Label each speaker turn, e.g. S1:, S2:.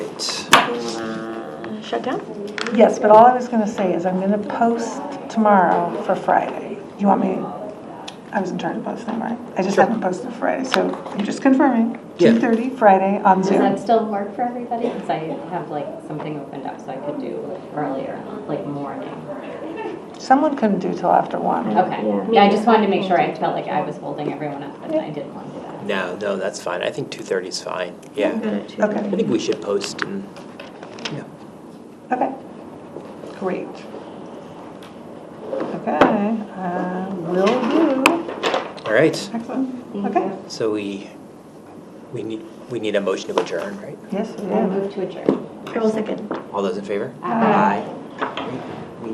S1: shut down?
S2: Yes, but all I was gonna say is I'm gonna post tomorrow for Friday. You want me, I was in charge of posting, right? I just haven't posted Friday, so I'm just confirming.
S3: Yeah.
S2: Two thirty, Friday on
S4: Does that
S2: Zoom.
S4: still work for everybody? Because I have like something opened up, so I could do like earlier, like morning.
S2: Someone couldn't do till after one.
S3: Or-
S4: Okay, yeah, I just wanted to make sure I felt like I was holding everyone up, and I didn't want to do that.
S3: No, no, that's fine. I think 2:30 is fine. Yeah. I
S2: Okay,
S3: think we should post and, yeah.
S2: okay. Great. Okay, uh, will do.
S3: All right.
S2: Excellent, okay.
S3: So we, we need, we need a motion to adjourn, right?
S2: Yes, we
S4: I
S2: do.
S4: move to adjourn.
S1: Girl second.
S3: All those in favor?
S4: Aye.
S3: Aye.